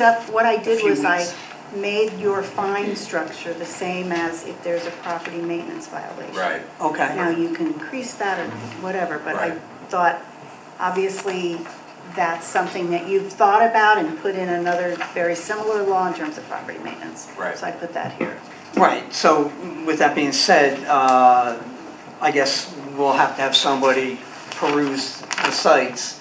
up, what I did Few was I weeks. made your fine structure the same as if there's a property maintenance violation. Right. Now, Okay, you can increase that or whatever, but I Right. thought, obviously, that's something that you've thought about and put in another very similar law in terms of property maintenance. Right. So I put that here. right, so with that being said, uh, I guess we'll have to have somebody peruse the sites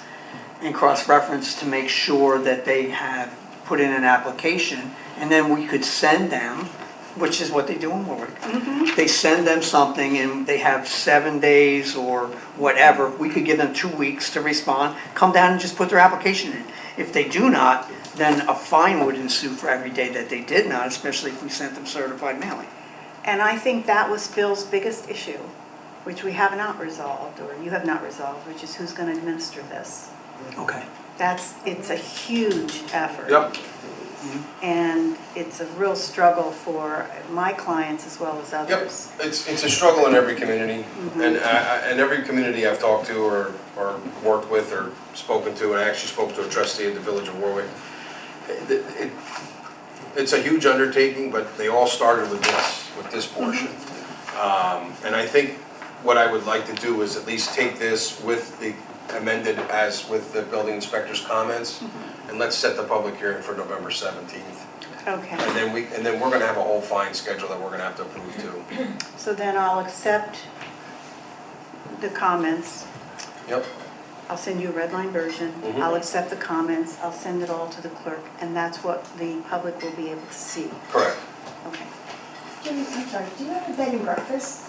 and cross-reference to make sure that they have put in an application, and then we could send them, which is what they do in Warwick. They send them something and they have seven days or whatever, we could give them two weeks to respond, come down and just put their application in. If they do not, then a fine would ensue for every day that they did not, especially if we sent them certified mailing. And I think that was Phil's biggest issue, which we have not resolved, or you have not resolved, which is who's gonna administer this. Okay. That's, it's a huge effort. Yep. And it's a real struggle for my clients as well as Yep, others. it's, it's a struggle in every community, and I, I- and every community I've talked to or, or worked with or spoken to, and I actually spoke to a trustee at the Village of Warwick. It- it- It's a huge undertaking, but they all started with this, with this portion. Um, and I think what I would like to do is at least take this with the amended as with the building inspector's comments, and let's set the public hearing for November seventeenth. And Okay, then we, and then we're gonna have a whole fine schedule that we're gonna have to approve too. so then I'll accept the comments. Yep. I'll send you a red line version. Mhm. I'll accept the comments. I'll send it all to the clerk, and that's what the public will be able to see. Correct. Okay. Jimmy, I'm sorry, do you have a bed and breakfast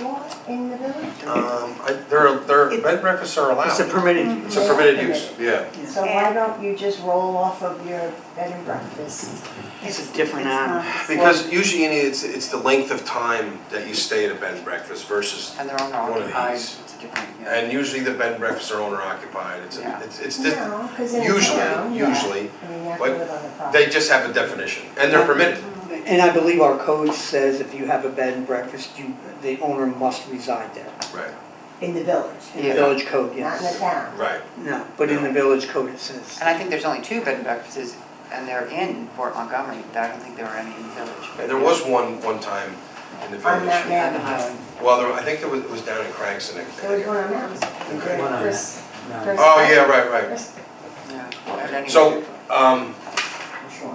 law in the village? Um, I, they're, they're, It- bed and breakfasts are allowed. It's a permitted, It's a permitted use, yeah. So why don't you just roll off of your bed and breakfast? it's a different It's animal. not- Because usually Andy, it's, it's the length of time that you stay at a bed and breakfast versus, And they're owner One of occupied, these. it's a different, yeah. and usually the bed and breakfasts are owner occupied. It's, Yeah. it's, it's, di- No, because in a usually, town, yeah. usually, I mean, you have to but live on the they property. just have a definition and they're permitted. And I believe our code says if you have a bed and breakfast, you, the owner must reside there. Right, In the village, In the village code, not in the yes. town. right. No, but in the village code it says. And I think there's only two bed and breakfasts, and they're in Fort Montgomery, I don't think there were any in the village. And there was one, one time in the On Mountain village. Avenue. Well, there, I think there was, it was down in Cranston. I There was think. one on Mountain. Okay. One on Chris- Chris- Oh, yeah, right, right. Chris- Yeah, but anyway. So, um, Sure.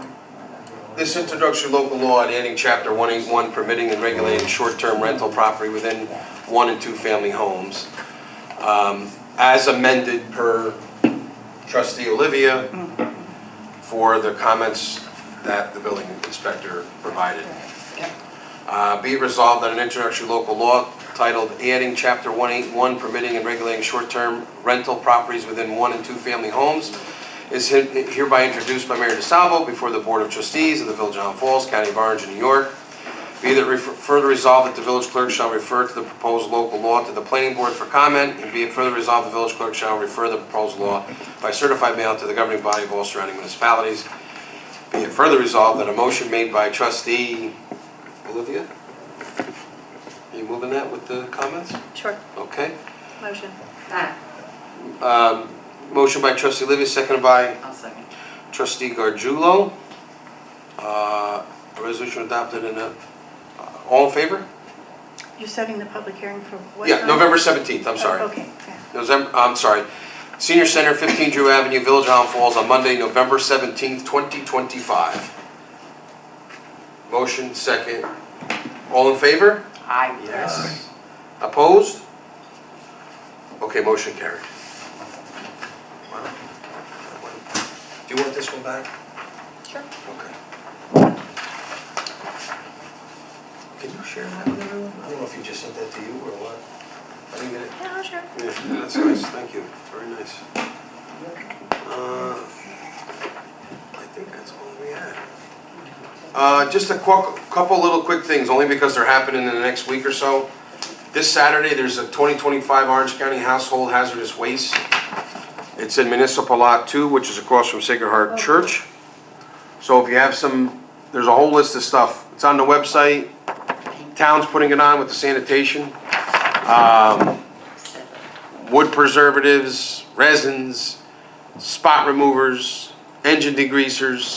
This introductory local law and adding chapter 181 permitting and regulating short-term rental property within one and two-family homes, um, as amended per trustee Olivia for the comments that the building inspector provided. Uh, Be it resolved that an introductory local law titled Adding Chapter 181 Permitting and Regulating Short-Term Rental Properties Within One and Two-Family Homes is he- hereby introduced by Mayor DeSalvo before the Board of Trustees of the Village of Highland Falls, County of Orange, and New York. Be that refer- further resolved that the village clerk shall refer to the proposed local law to the planning board for comment, and be it further resolved, the village clerk shall refer the proposed law by certified mail to the governing body of all surrounding municipalities. Be it further resolved that a motion made by trustee Olivia? Are you moving that with the comments? Sure, Okay. motion. Um, Motion by trustee Olivia, seconded by I'll second. Trustee Gargiulo. Uh, A resolution adopted in a, uh, all in favor? You're setting the public hearing for what? Yeah, time? November 17th, I'm Oh, sorry. Okay, okay. November, I'm sorry. Senior Center, 15 Drew Avenue, Village Island Falls, on Monday, November 17th, 2025. Motion second. All in favor? Aye. Opposed? Okay, motion carried. Wow. Do you want this one back? Sure. Okay. Can you share that with everyone? I don't know if you just sent that to you or what. I didn't get it. Yeah, sure. Yeah, that's nice, thank you, very nice. Uh, I think that's all we had. Uh, Just a qu- couple little quick things, only because they're happening in the next week or so. This Saturday, there's a 2025 Orange County Household Hazardous Waste. It's in Municipal Lot 2, which is across from Sacred Heart Church. So if you have some, there's a whole list of stuff. It's on the website. Town's putting it on with the sanitation. Um, wood preservatives, resins, spot removers, engine degreasers,